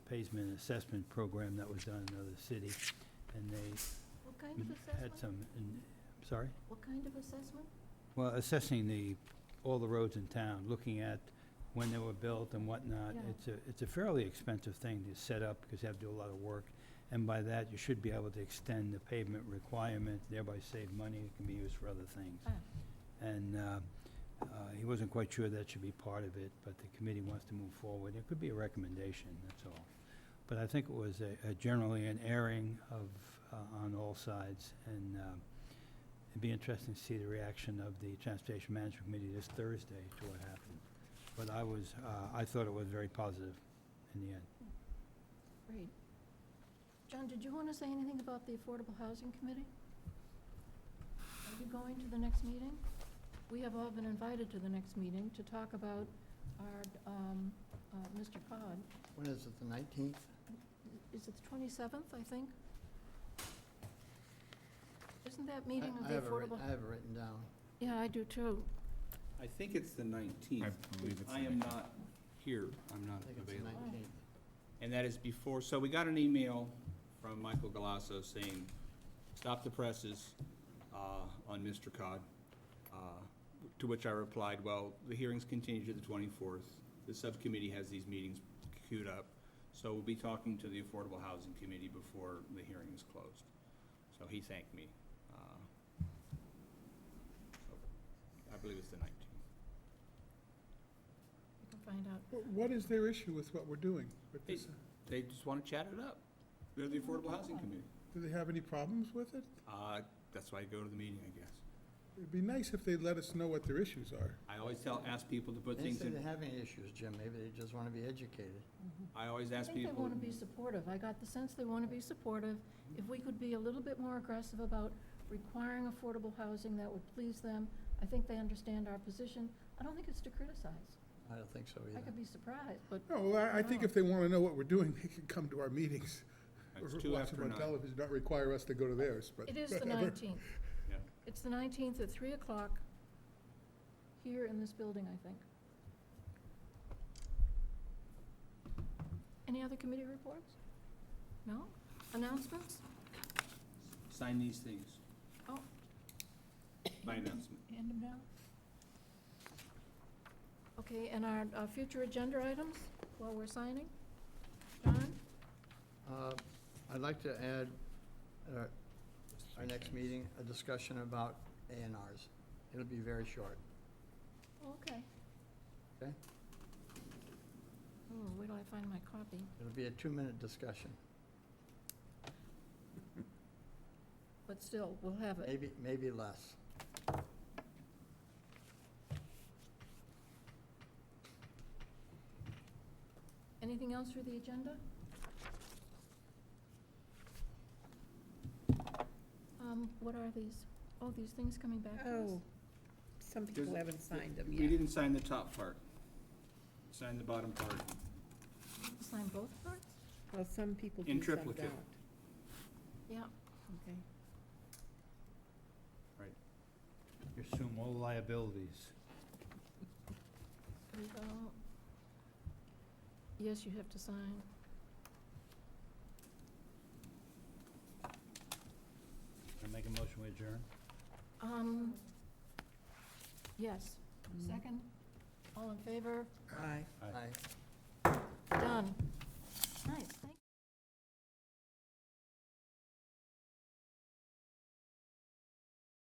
pavement assessment program that was done in another city, and they What kind of Mm-hmm. had assessment? some, in- sorry? What kind of assessment? Well, assessing the, all the roads in town, looking at when they were built and whatnot. Yeah. It's a, it's a fairly expensive thing to set up because you have to do a lot of work. And by that, you should be able to extend the pavement requirement, thereby save money. It can be used for other things. Ah. And uh, uh, he wasn't quite sure that should be part of it, but the committee wants to move forward. It could be a recommendation, that's all. But I think it was a- a generally an airing of, uh, on all sides. And um, It'd be interesting to see the reaction of the Transportation Management Committee this Thursday to what happened. But I was, uh, I thought it was very positive in the end. Great. John, did you want to say anything about the Affordable Housing Committee? Are you going to the next meeting? We have all been invited to the next meeting to talk about our, um, uh, Mr. Cod. When is it, the nineteenth? Is it the twenty-seventh, I think? Isn't that meeting of I the have it writ- Affordable? I have it written down. Yeah, I do too. I think it's the 19th. I believe it's the I am 19th. not here, I'm not I think it's the available. nineteenth. And that is before, so we got an email from Michael Galasso saying, stop the presses uh, on Mr. Cod. Uh, To which I replied, well, the hearings continue to the 24th. The subcommittee has these meetings queued up, so we'll be talking to the Affordable Housing Committee before the hearing is closed. So he thanked me. Uh, so I believe it's the 19th. We can find out. Wh- What is their issue with what we're doing? with this? They just want to chat it up. They're the Affordable Housing Committee. Do they have any problems with it? Uh, that's why I go to the meeting, I guess. It'd be nice if they'd let us know what their issues are. I always tell, ask people to put They things say in, they have any issues, Jim, maybe they just want to be educated. I always I ask think they people, want to be supportive. I got the sense they want to be supportive. If we could be a little bit more aggressive about requiring affordable housing, that would please them. I think they understand our position. I don't think it's to criticize. I don't think so I either. could be surprised, but No, well, I, I think if they want to know what we're doing, they can come to our meetings. it's or uh, two watch after them on nine. television, not require us to go to theirs, but. it is the whatever. nineteenth. Yeah. It's the nineteenth at three o'clock here in this building, I think. Any other committee reports? No? Announcements? Sign these things. Oh. By announcement. Hand them down. Okay, and our uh, future agenda items while we're signing? John? Uh, I'd like to add, at our- our next meeting, a discussion about A and Rs. It'll be very short. Okay. Okay. Oh, where do I find my copy? It'll be a two-minute discussion. But still, we'll have it. Maybe, maybe less. Anything else for the agenda? Um, what are these? Oh, these things coming back to us? Oh, some people haven't signed them We yet. didn't sign the top part. Sign the bottom part. Sign both parts? Well, some people In do, some don't. triplicate. Yeah. Okay. You assume all liabilities. We go. Yes, you have to sign. I make a motion we adjourn? Um, yes. Mm. Second? All in favor? Aye. I Done.